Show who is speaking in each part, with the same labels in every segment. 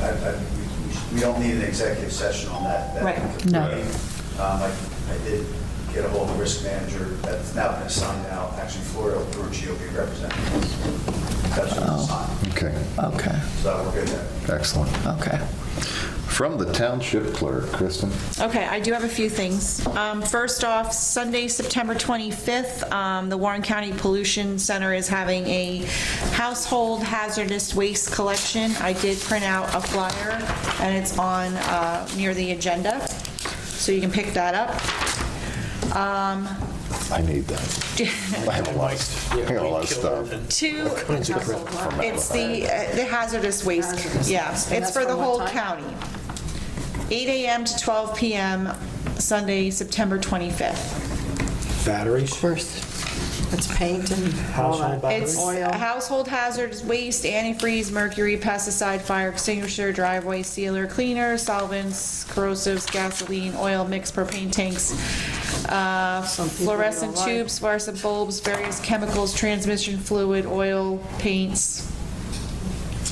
Speaker 1: I- I- we- we sh- we don't need an executive session on that. that
Speaker 2: Right.
Speaker 1: could
Speaker 3: No.
Speaker 1: be. Um, I I did get a hold of the risk manager that's now been assigned out, actually Florida through GOP representatives. That's what
Speaker 4: Oh.
Speaker 1: it's assigned.
Speaker 5: Okay,
Speaker 3: Okay,
Speaker 1: So we're good there.
Speaker 5: excellent.
Speaker 3: okay.
Speaker 5: From the township clerk, Kristen.
Speaker 2: Okay, I do have a few things. Um, First off, Sunday, September 25th, um, the Warren County Pollution Center is having a household hazardous waste collection. I did print out a flyer, and it's on, uh, near the agenda, so you can pick that up. Um,
Speaker 5: I need that. I have a lot, I got a lot of stuff.
Speaker 2: Two, it's the uh, the hazardous waste,
Speaker 6: Hazardous
Speaker 2: yeah,
Speaker 6: waste. And
Speaker 2: it's
Speaker 6: that's
Speaker 2: for the
Speaker 6: from what
Speaker 2: whole
Speaker 6: time?
Speaker 2: county. 8 AM to 12 PM, Sunday, September 25th.
Speaker 4: Batteries?
Speaker 6: First, it's paint and all
Speaker 4: Household
Speaker 6: that.
Speaker 2: It's
Speaker 6: Oil.
Speaker 2: household hazards, waste, antifreeze, mercury, pesticide, fire extinguisher, driveway sealer, cleaner, solvents, corrosives, gasoline, oil mixed propane tanks, uh,
Speaker 6: Some people
Speaker 2: fluorescent
Speaker 6: don't like.
Speaker 2: tubes, fluorescent bulbs, various chemicals, transmission fluid, oil, paints,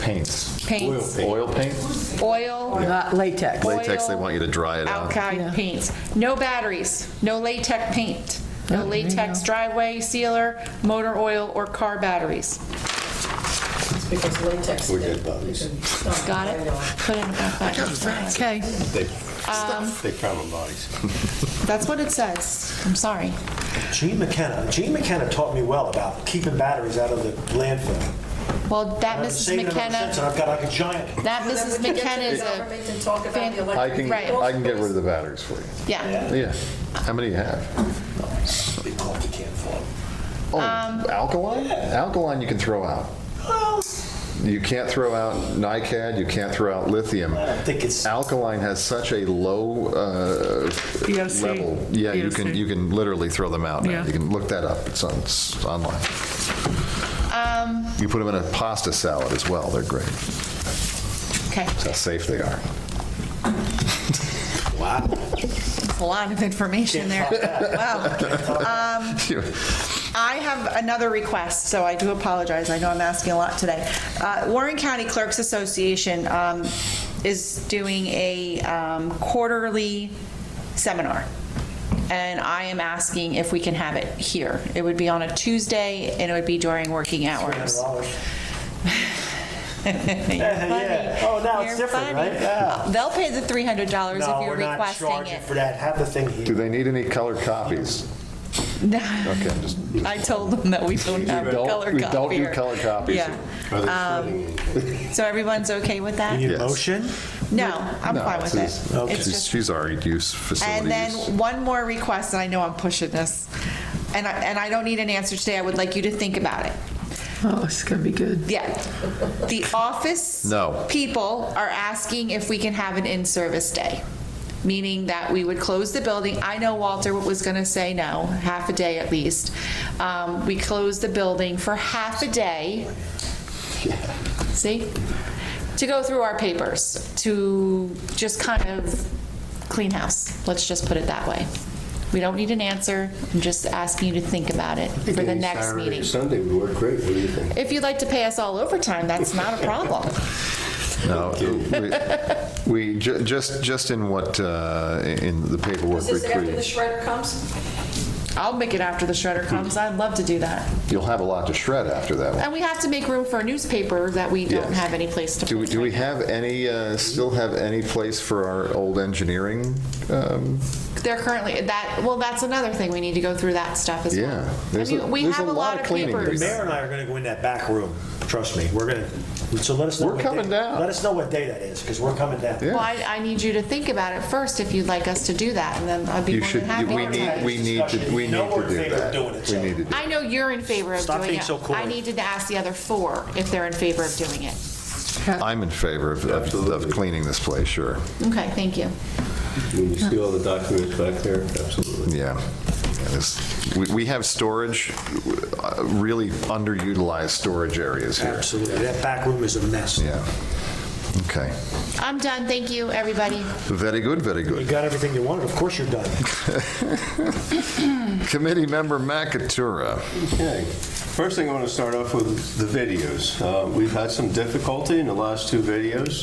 Speaker 5: Paints.
Speaker 2: paints,
Speaker 5: Oil paint?
Speaker 2: oil.
Speaker 3: Uh,
Speaker 6: Not latex.
Speaker 5: Latex, they
Speaker 2: Oil,
Speaker 5: want you to dry it out.
Speaker 2: Alkyd paints. No batteries, no latex paint, no latex driveway sealer, motor oil, or car batteries.
Speaker 6: It's because latex.
Speaker 4: We get bodies.
Speaker 2: Got it? Put in about that.
Speaker 3: Okay,
Speaker 4: They they found bodies.
Speaker 2: That's what it says. I'm sorry.
Speaker 4: Gene McKenna, Gene McKenna taught me well about keeping batteries out of the landfill.
Speaker 2: Well, that
Speaker 4: I've been
Speaker 2: Mrs.
Speaker 4: saving them ever since, And
Speaker 2: McKenna,
Speaker 4: I've got like a giant.
Speaker 2: that Mrs. McKenna is a,
Speaker 6: Government and talk about the
Speaker 5: I
Speaker 6: electric
Speaker 5: can,
Speaker 2: Right.
Speaker 5: I can get rid of the batteries for you.
Speaker 2: yeah.
Speaker 5: Yeah. How many you have?
Speaker 4: They call it the can fall.
Speaker 5: Oh,
Speaker 2: Um,
Speaker 5: alkaline? Alkaline you can throw out. You can't throw out NiCad, you can't throw out lithium.
Speaker 4: I think it's,
Speaker 5: Alkaline has such a low uh,
Speaker 3: VOC.
Speaker 5: level. Yeah, you can,
Speaker 3: VOC.
Speaker 5: you can literally throw them out now.
Speaker 3: Yeah.
Speaker 5: You can look that up, it's on, it's online.
Speaker 2: Um.
Speaker 5: You put them in a pasta salad as well, they're great.
Speaker 2: Okay,
Speaker 5: That's how safe they are.
Speaker 4: wow.
Speaker 2: that's a lot of information there. Wow. I have another request, so I do apologize. I know I'm asking a lot today. Uh, Warren County Clerks Association um, is doing a um, quarterly seminar, and I am asking if we can have it here. It would be on a Tuesday, and it would be during working hours.
Speaker 4: $300.
Speaker 2: Yeah.
Speaker 4: Yeah. Oh, now it's different, right? Yeah.
Speaker 2: They'll pay the $300
Speaker 4: No,
Speaker 2: if you're
Speaker 4: we're not
Speaker 2: requesting
Speaker 4: charging
Speaker 2: it.
Speaker 4: for that. Have the thing
Speaker 5: Do
Speaker 4: here.
Speaker 5: they need any colored copies? Okay, I'm just,
Speaker 2: I told them that we don't have a
Speaker 5: don't-
Speaker 2: color
Speaker 5: we
Speaker 2: copier.
Speaker 5: don't do color copies.
Speaker 2: Yeah. Um, So everyone's okay with that?
Speaker 4: You need a
Speaker 5: Yes.
Speaker 4: motion?
Speaker 2: No, I'm
Speaker 5: no,
Speaker 2: fine
Speaker 5: this
Speaker 2: with
Speaker 5: is-
Speaker 2: it. It's
Speaker 5: she's-
Speaker 2: just-
Speaker 5: she's already used facilities.
Speaker 2: And then one more request, and I know I'm pushing this, and I, and I don't need an answer today, I would like you to think about it.
Speaker 3: oh, it's gonna be good.
Speaker 2: Yeah. The office.
Speaker 5: No.
Speaker 2: People are asking if we can have an in-service day, meaning that we would close the building. I know Walter was going to say no, half a day at least. Um, We close the building for half a day. See? To go through our papers, to just kind of clean house. Let's just put it that way. We don't need an answer. I'm just asking you to think about it for the next meeting.
Speaker 7: Sunday would work great, what do you think?
Speaker 2: If you'd like to pay us all overtime, that's not a problem.
Speaker 5: No, we- we, ju- just, just in what, uh, in the paperwork
Speaker 6: Is this
Speaker 5: we
Speaker 6: after the
Speaker 5: create.
Speaker 6: shredder comes?
Speaker 2: I'll make it after the shredder comes. I'd love to do that.
Speaker 5: You'll have a lot to shred after that one.
Speaker 2: And we have to make room for a newspaper that we don't
Speaker 5: Yes.
Speaker 2: have any place to
Speaker 5: Do we,
Speaker 2: put.
Speaker 5: do we have any, uh, still have any place for our old engineering? um,
Speaker 2: They're currently, that, well, that's another thing. We need to go through that stuff as well.
Speaker 5: Yeah.
Speaker 2: I
Speaker 5: There's a-
Speaker 2: mean, we
Speaker 5: there's
Speaker 2: have a lot of
Speaker 5: cleaning to be
Speaker 2: papers.
Speaker 5: done.
Speaker 4: Mayor and I are going to go in that back room, trust me. We're going to, so let us know.
Speaker 5: We're
Speaker 4: what day-
Speaker 5: coming down.
Speaker 4: Let us know what day that is, because we're coming down.
Speaker 5: Yeah.
Speaker 2: Well, I, I need you to think about it first if you'd like us to do that, and then I'd be
Speaker 5: You
Speaker 2: more than
Speaker 5: should,
Speaker 2: happy.
Speaker 5: we
Speaker 2: to.
Speaker 5: need, we need to, we
Speaker 4: No,
Speaker 5: need
Speaker 4: we're
Speaker 5: to
Speaker 4: in
Speaker 5: do
Speaker 4: favor of
Speaker 5: that.
Speaker 4: doing it,
Speaker 5: We
Speaker 4: so.
Speaker 5: need to do
Speaker 2: I know you're in favor of
Speaker 4: Stop
Speaker 2: doing
Speaker 4: being
Speaker 2: it.
Speaker 4: so coy.
Speaker 2: I needed to ask the other four if they're in favor of doing it.
Speaker 5: I'm in favor of, of- of cleaning this place, sure.
Speaker 2: Okay, thank you.
Speaker 7: When you see all the documents back there, absolutely.
Speaker 5: Yeah. Yeah, this- We, we have storage, uh, really underutilized storage areas here.
Speaker 4: Absolutely. That back room is a mess.
Speaker 5: Yeah. Okay.
Speaker 2: I'm done. Thank you, everybody.
Speaker 5: Very good, very
Speaker 4: You
Speaker 5: good.
Speaker 4: got everything you wanted, of course you're done.
Speaker 5: Committee member Macatura.
Speaker 7: Okay. First thing I want to start off with is the videos. Uh, We've had some difficulty in the last two videos.